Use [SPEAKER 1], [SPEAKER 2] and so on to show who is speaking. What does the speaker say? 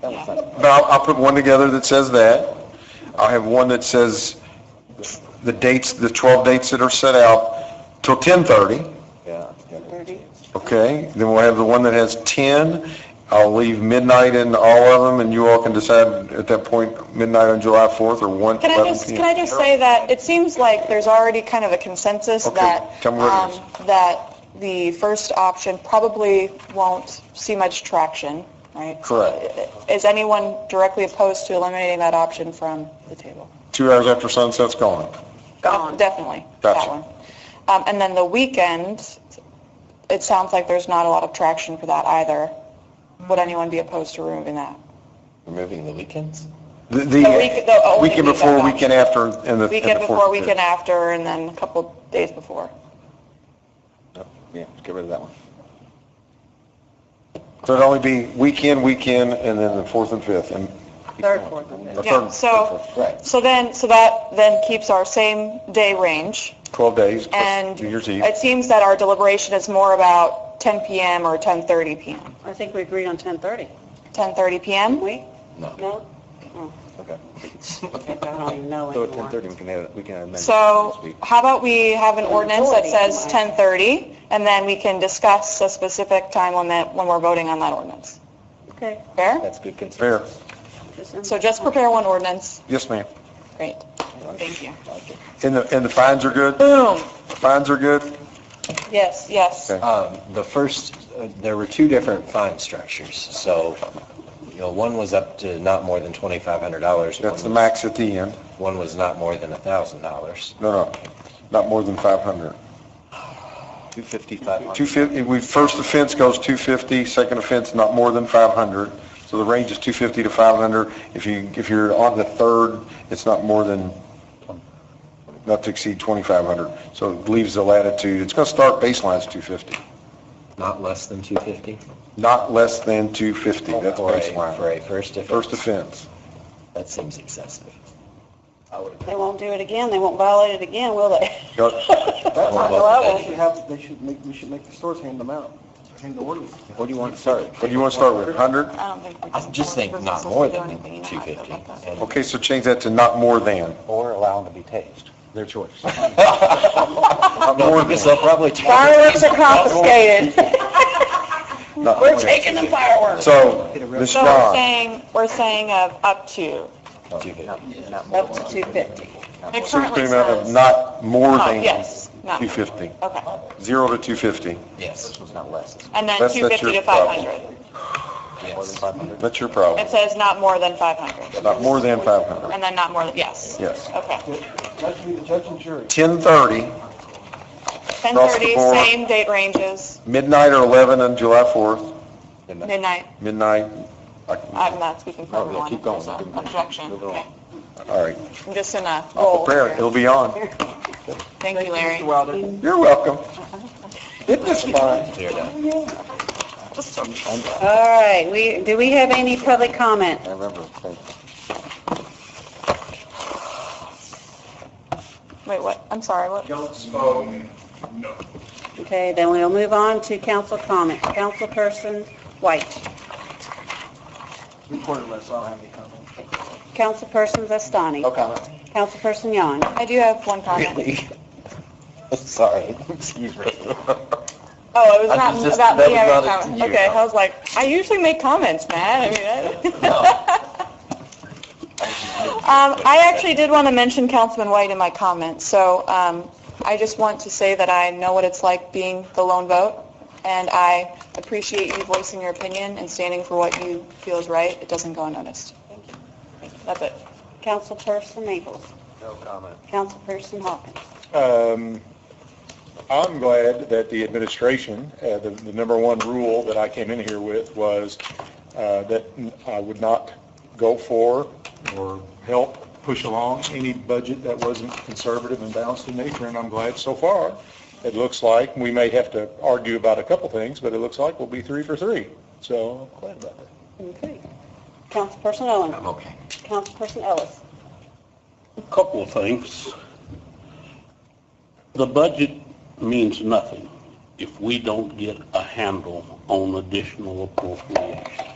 [SPEAKER 1] That was like,
[SPEAKER 2] But I'll, I'll put one together that says that. I'll have one that says the dates, the 12 dates that are set out till 10:30,
[SPEAKER 1] yeah. Thirty?
[SPEAKER 2] okay? Then we'll have the one that has 10. I'll leave midnight in all of them, and you all can decide at that point, midnight on July 4th or 1,
[SPEAKER 3] Can I
[SPEAKER 2] 11
[SPEAKER 3] just,
[SPEAKER 2] p.m.
[SPEAKER 3] can I just say that it seems like there's already kind of a consensus
[SPEAKER 2] Okay,
[SPEAKER 3] that,
[SPEAKER 2] tell me what it
[SPEAKER 3] um, that the first option probably won't see much traction, right?
[SPEAKER 2] Correct.
[SPEAKER 3] Is anyone directly opposed to eliminating that option from the table?
[SPEAKER 2] Two hours after sunset's gone.
[SPEAKER 3] Gone. Definitely, that
[SPEAKER 2] Gotcha.
[SPEAKER 3] one. Um, And then the weekend, it sounds like there's not a lot of traction for that either. Would anyone be opposed to removing that?
[SPEAKER 1] Removing the weekends?
[SPEAKER 2] The,
[SPEAKER 3] The week- the oh,
[SPEAKER 2] the
[SPEAKER 3] only
[SPEAKER 2] weekend
[SPEAKER 3] week
[SPEAKER 2] before,
[SPEAKER 3] I've got.
[SPEAKER 2] weekend after, and the.
[SPEAKER 3] Weekend
[SPEAKER 2] and the
[SPEAKER 3] before,
[SPEAKER 2] fourth.
[SPEAKER 3] weekend after, and then a couple days before.
[SPEAKER 1] No, Yeah, get rid of that one.
[SPEAKER 2] So it'd only be weekend, weekend, and then the 4th and 5th, and Oh,
[SPEAKER 4] Third, fourth, and
[SPEAKER 2] the
[SPEAKER 4] fifth.
[SPEAKER 3] Yeah,
[SPEAKER 2] 3rd,
[SPEAKER 3] so,
[SPEAKER 1] Right.
[SPEAKER 3] so then, so that then keeps our same day range,
[SPEAKER 2] 12 days,
[SPEAKER 3] and
[SPEAKER 2] New Year's Eve.
[SPEAKER 3] it seems that our deliberation is more about 10 PM or 10:30 PM.
[SPEAKER 4] I think we agreed on 10:30,
[SPEAKER 3] 10:30
[SPEAKER 4] didn't
[SPEAKER 3] PM?
[SPEAKER 4] we?
[SPEAKER 1] No,
[SPEAKER 4] No? Oh,
[SPEAKER 1] okay.
[SPEAKER 4] I don't even know
[SPEAKER 1] So at
[SPEAKER 4] anymore.
[SPEAKER 1] 10:30, we can have, we can amend. it this
[SPEAKER 3] So
[SPEAKER 1] week.
[SPEAKER 3] how about we have an ordinance that says
[SPEAKER 4] 10:30.
[SPEAKER 3] 10:30, and then we can discuss a specific time on that, when we're voting on that ordinance.
[SPEAKER 4] Okay.
[SPEAKER 3] Fair?
[SPEAKER 1] That's good
[SPEAKER 2] Fair.
[SPEAKER 1] consensus.
[SPEAKER 3] So just prepare one ordinance.
[SPEAKER 2] Yes, ma'am.
[SPEAKER 3] Great.
[SPEAKER 1] Fair,
[SPEAKER 3] Thank you.
[SPEAKER 2] And the, and the fines are good?
[SPEAKER 3] Boom.
[SPEAKER 2] Fines are good?
[SPEAKER 3] Yes, yes.
[SPEAKER 2] Okay.
[SPEAKER 5] Um, The first, uh, there were two different fine structures, so, you know, one was up to not more than $2,500.
[SPEAKER 2] That's the
[SPEAKER 5] one-
[SPEAKER 2] max at the end.
[SPEAKER 5] One was not more than $1,000.
[SPEAKER 2] No, no, not more than 500.
[SPEAKER 1] 255.
[SPEAKER 2] 250, we, first offense goes 250, second offense not more than 500. So the range is 250 to 500. If you, if you're on the third, it's not more than, not to exceed 2,500. So it leaves the latitude, it's going to start baseline's 250,
[SPEAKER 5] Not less than 250?
[SPEAKER 2] not less than 250, that's
[SPEAKER 5] For a- For
[SPEAKER 2] baseline.
[SPEAKER 5] a first offense?
[SPEAKER 2] First offense.
[SPEAKER 5] That seems excessive. I would
[SPEAKER 4] They won't do it again, they won't violate it again, will they?
[SPEAKER 6] That's
[SPEAKER 5] Well,
[SPEAKER 6] not how
[SPEAKER 5] well,
[SPEAKER 6] they should have, they should make, we should make the stores hand them out, hand the orders.
[SPEAKER 1] What do you want to start?
[SPEAKER 2] What do you want to start with, 100?
[SPEAKER 3] I don't think we
[SPEAKER 5] I
[SPEAKER 3] can-
[SPEAKER 5] just think not more than 250. and-
[SPEAKER 2] Okay, so change that to not more than.
[SPEAKER 1] Or allow them to be tased.
[SPEAKER 2] Their choice.
[SPEAKER 5] No, because they'll probably charge
[SPEAKER 3] Fireworks are confiscated.
[SPEAKER 2] We're taking the fireworks. So, Ms.
[SPEAKER 3] So we're
[SPEAKER 2] Vaughn,
[SPEAKER 3] saying, we're saying of up to.
[SPEAKER 5] 250.
[SPEAKER 4] Up to 250.
[SPEAKER 3] It
[SPEAKER 2] so it's
[SPEAKER 3] currently
[SPEAKER 2] pretty much of
[SPEAKER 3] says-
[SPEAKER 2] not more
[SPEAKER 3] Oh,
[SPEAKER 2] than
[SPEAKER 3] yes, not,
[SPEAKER 2] 250,
[SPEAKER 3] okay.
[SPEAKER 2] zero to 250,
[SPEAKER 5] Yes,
[SPEAKER 1] It's not less.
[SPEAKER 3] And then
[SPEAKER 2] That's- that's
[SPEAKER 3] 250
[SPEAKER 2] your
[SPEAKER 3] to 500.
[SPEAKER 1] More than
[SPEAKER 5] yes.
[SPEAKER 1] 500.
[SPEAKER 2] that's your
[SPEAKER 3] It
[SPEAKER 2] problem,
[SPEAKER 3] says not more than 500,
[SPEAKER 2] not more than 500.
[SPEAKER 3] and then not more than, yes.
[SPEAKER 2] Yes.
[SPEAKER 3] Okay.
[SPEAKER 6] Judge, the judge and jury.
[SPEAKER 2] 10:30, Across the
[SPEAKER 3] 10:30,
[SPEAKER 2] board.
[SPEAKER 3] same date ranges,
[SPEAKER 2] midnight or 11 on July 4th,
[SPEAKER 3] midnight.
[SPEAKER 2] midnight,
[SPEAKER 3] I'm not speaking for
[SPEAKER 1] Oh, yeah,
[SPEAKER 3] everyone.
[SPEAKER 1] keep going.
[SPEAKER 3] so, Objection.
[SPEAKER 1] Move it on.
[SPEAKER 3] Okay.
[SPEAKER 2] all right,
[SPEAKER 3] I'm just in a
[SPEAKER 2] I'll
[SPEAKER 3] roll
[SPEAKER 2] prepare it,
[SPEAKER 3] here.
[SPEAKER 2] it'll be on.
[SPEAKER 3] Thank you,
[SPEAKER 6] Mr.
[SPEAKER 3] Larry.
[SPEAKER 6] Wilder.
[SPEAKER 2] You're welcome. Isn't this fun?
[SPEAKER 5] Clear it up.
[SPEAKER 4] All right, we, do we have any public comment?
[SPEAKER 1] I remember. Thank
[SPEAKER 3] Wait, what? I'm sorry, what?
[SPEAKER 4] Okay, then we'll move on to council comment. Councilperson White,
[SPEAKER 6] Record it less, I don't have any comments.
[SPEAKER 4] Councilperson Zastani,
[SPEAKER 1] No comment.
[SPEAKER 4] Councilperson Yon.
[SPEAKER 3] I do have one comment.
[SPEAKER 1] Really? Sorry, excuse me.
[SPEAKER 3] Oh, it was
[SPEAKER 1] I
[SPEAKER 3] not
[SPEAKER 1] was just-
[SPEAKER 3] about
[SPEAKER 1] that
[SPEAKER 3] me
[SPEAKER 1] was
[SPEAKER 3] having
[SPEAKER 1] not
[SPEAKER 3] a
[SPEAKER 1] up to
[SPEAKER 3] comment.
[SPEAKER 1] you.
[SPEAKER 3] Okay, I was like, I usually make comments, man. I mean, I- Um, I actually did want to mention Councilman White in my comments, so, um, I just want to say that I know what it's like being the lone vote, and I appreciate you voicing your opinion and standing for what you feel is right. It doesn't go unnoticed. Thank you. That's it.
[SPEAKER 4] Councilperson Maples. No comment. Councilperson Hawkins.
[SPEAKER 7] Um, I'm glad that the administration, uh, the the number one rule that I came in here with was uh, that I would not go for or help push along any budget that wasn't conservative and balanced in nature, and I'm glad so far. It looks like, we may have to argue about a couple things, but it looks like we'll be three for three. So I'm glad about that.
[SPEAKER 4] Okay. Councilperson Owen.
[SPEAKER 5] I'm okay.
[SPEAKER 4] Councilperson Ellis.
[SPEAKER 8] Couple of things. The budget means nothing if we don't get a handle on additional appropriations.